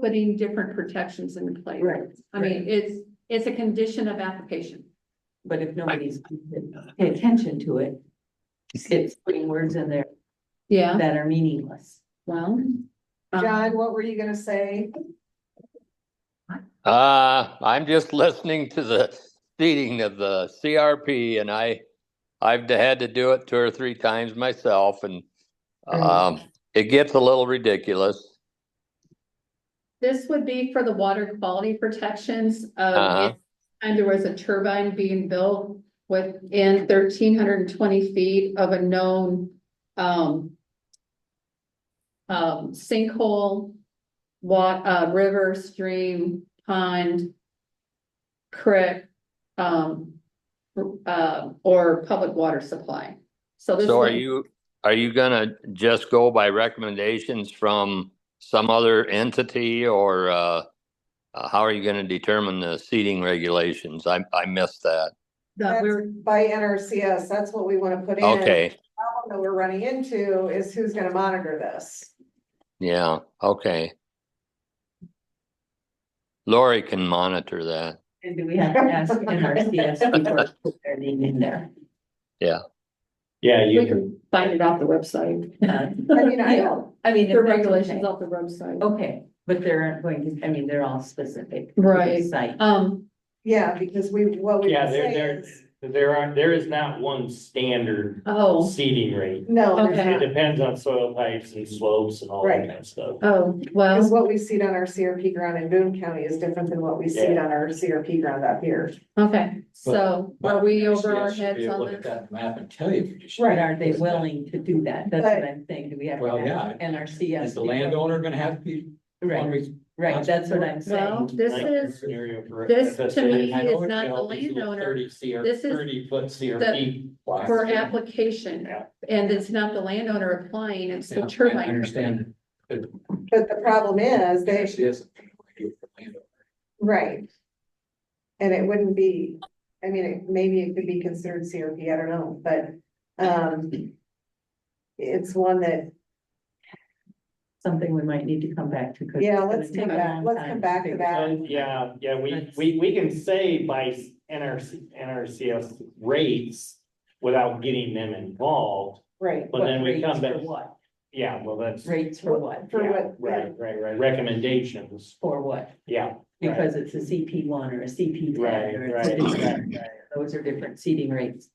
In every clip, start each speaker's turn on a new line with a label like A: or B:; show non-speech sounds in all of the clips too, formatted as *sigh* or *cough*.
A: putting different protections in place.
B: Right.
A: I mean, it's, it's a condition of application.
B: But if nobody's paying attention to it, it's putting words in there
A: Yeah,
B: that are meaningless.
A: well. um,
C: John, what were you gonna say?
D: Uh, I'm just *laughs* listening to the seating of the CRP and I, I've had to do it two or three times myself and, um, it gets a little ridiculous.
A: This would be for the water quality protections
D: Uh-huh.
A: of, and there was a turbine being built within thirteen hundred and twenty feet of a known, um, um, sinkhole, wa- uh, river, stream, pond, creek, um, uh, or public water supply. So this.
D: So are
A: is-
D: you, are you gonna just go by recommendations from some other entity or, uh, uh, how are you gonna determine the seating regulations? I, I missed that.
A: that
C: That's
A: we're-
C: By NRCS, that's what we wanna put in.
D: Okay,
C: The Problem that we're running into is who's gonna monitor this.
D: yeah, okay. Lori can monitor that.
B: And do we have to ask
C: *laughs*
B: NRCS before we put their name in there?
E: Yeah, you
A: We
E: can,
A: Find it off the website.
B: Uh,
C: I mean, I don't,
B: I mean. if
A: The
B: that's
A: regulations
B: okay.
A: off the website.
B: Okay, but they're going to, I mean, they're all specific. to the
A: Right.
B: Site.
A: Um,
C: yeah, because we, what we
E: yeah,
C: can
E: there,
C: say
E: there,
C: is,
E: there are, there is not one standard
A: oh,
E: seeding rate.
C: no, there's
A: Okay.
C: not.
E: It depends on soil types and slopes and all that kind of stuff.
A: oh,
C: Because
A: well,
C: what we seed on our CRP ground in Boone County is different than what we seed
E: Yeah.
C: on our CRP ground up here.
A: okay, so are we over our
F: Yes,
A: heads
F: yeah,
A: on
F: Look at
A: this?
F: that map and tell you. if you're
B: But are they willing to do that? That's
C: But-
B: what I'm saying. Do we have to
F: Well,
B: ask NRCS?
F: Is the
B: before-
F: landowner gonna have to be?
B: Right, right. That's what I'm
A: Well,
B: saying.
A: this
E: Like
A: is,
E: scenario for
A: this
E: FSA.
A: to me
F: I know
A: is
F: it's
A: not the
F: got all these little
A: landowner,
F: Thirty CR,
A: This is
F: thirty foot CRP. plots.
A: for application,
E: Yeah.
A: and it's not the landowner applying, it's
F: Yeah,
A: the
F: I
A: turbine.
F: Understand.
C: But the problem is, they,
F: Actually, it's a idea for landowner.
C: right. And it wouldn't be, I mean, it- maybe it could be considered CRP, I don't know, but, um. It's one that,
B: Something we might need to come back to. 'cause
C: yeah,
B: it's
C: let's
B: gonna
C: come
B: take a
C: back,
B: long
C: let's
B: time
C: come back to
B: figure
C: that.
E: And yeah, yeah, we,
B: That's-
E: we, we can say by s- NRC, NRCS rates without getting them involved.
C: Right,
E: But then we
B: rates
E: come
B: for
E: back,
B: what?
E: yeah, well, that's.
B: Rates for what?
C: For
E: yeah,
C: what-
E: Right, right, right, recommendations,
B: For what?
E: yeah.
B: Because it's a CP one or a CP
E: Right,
B: ten or it's a
E: right,
B: different,
E: right, right.
B: those are different seating rates.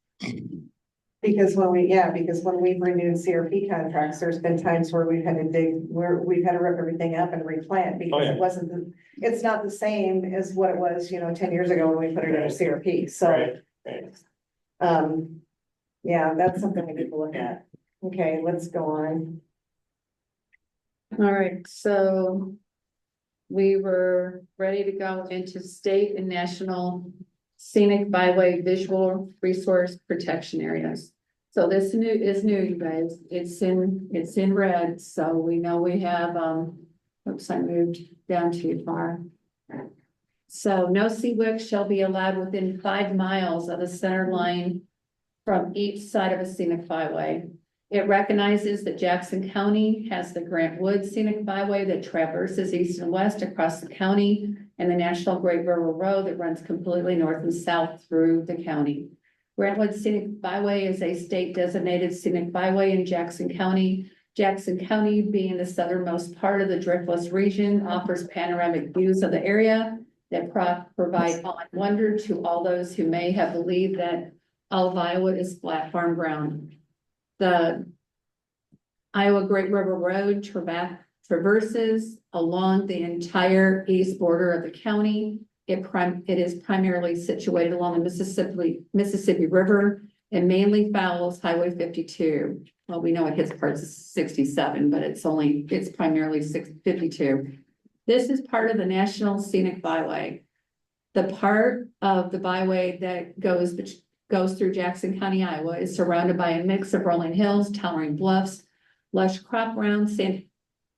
C: because when we, yeah, because when we've renewed CRP contracts, there's been times where we've had to dig, where we've had to rip everything up and replant because
E: Oh, yeah.
C: it wasn't, the it's not the same as what it was, you know, ten years ago when we put it in a
E: Right.
C: CRP, so.
E: Right, right.
C: Um, yeah, that's something we need to look at. Okay, let's go on.
A: All right, so we were ready to go into state and national scenic byway visual resource protection areas. So this new is new, you guys. It's in, it's in red, so we know we have, um, oops, I moved down too far. So no sea wick shall be allowed within five miles of the center line from each side of a scenic byway. It recognizes that Jackson County has the Grant Woods Scenic Byway that traverses east and west across the county and the National Great River Road that runs completely north and south through the county. Grant Woods Scenic Byway is a state designated scenic byway in Jackson County. Jackson County, being the southernmost part of the Driftless region, offers panoramic views of the area that pro- provide awe and wonder to all those who may have believed that all of Iowa is flat farm ground the Iowa Great River Road trava- traverses along the entire east border of the county. It prim, it is primarily situated along the Mississippi, Mississippi River and mainly follows Highway fifty-two. Well, we know it hits parts of sixty-seven, but it's only, it's primarily six, fifty-two. This is part of the National Scenic Byway. The part of the byway that goes bet- goes through Jackson County, Iowa, is surrounded by a mix of rolling hills, towering bluffs, lush crop grounds, sand,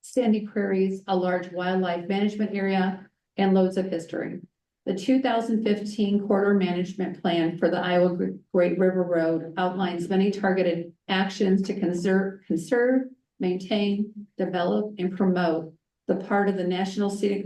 A: sandy prairies, a large wildlife management area, and loads of history. The two thousand fifteen corridor management plan for the Iowa Gr- Great River Road outlines many targeted actions to conserve, conserve, maintain, develop, and promote the part of the National Scenic